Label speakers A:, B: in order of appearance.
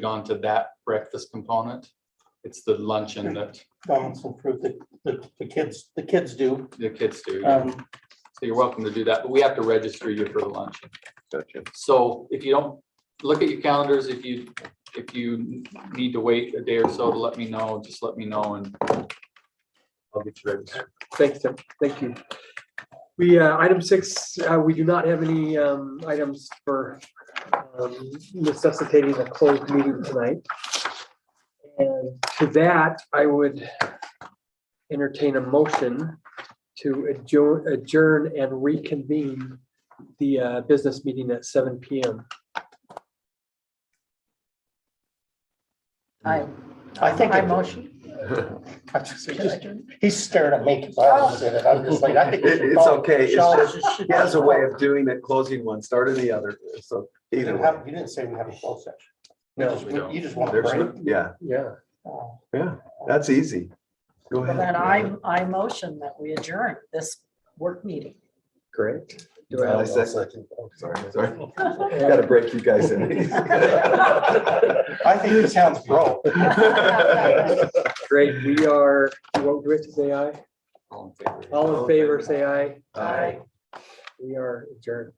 A: gone to that breakfast component. It's the luncheon that
B: Donaldson fruit that, that the kids, the kids do.
A: the kids do. So
B: Um,
A: you're welcome to do that, but we have to register you for the luncheon.
C: Gotcha.
A: So if you don't, look at your calendars, if you, if you need to wait a day or so to let me know, just let me know and I'll get you registered.
D: Thanks, Tim. Thank you. We, uh, item six, uh, we do not have any um, items for um, necessitating a closed meeting tonight. And to that, I would entertain a motion to adjourn- adjourn and reconvene the uh, business meeting at seven PM.
E: I,
B: I think,
E: I
B: it-
E: motion.
B: I just- it just- he's staring at me because I was in it. I'm just like, I think. we
C: It-
B: should
C: it's
B: call
C: okay. It's
B: Michelle.
C: just- He has a way of doing it, closing one, starting the other, so
B: You
C: either
B: didn't
C: way.
B: have- you didn't say we have a closed session. You
D: No,
B: just-
A: we don't.
B: You just want to
C: There's,
B: break.
C: yeah,
D: yeah.
B: Oh,
C: yeah, that's easy. Go
E: Well,
C: ahead.
E: Then I, I motion that we adjourn this work meeting.
D: Great. Do I have-
C: I second. Sorry, sorry. Got to
D: and
C: break you guys in.
B: I think he sounds broke.
D: Great, we are, what, do we have to say aye?
A: All in favor?
D: All in favor, say aye.
C: Aye.
D: We are adjourned.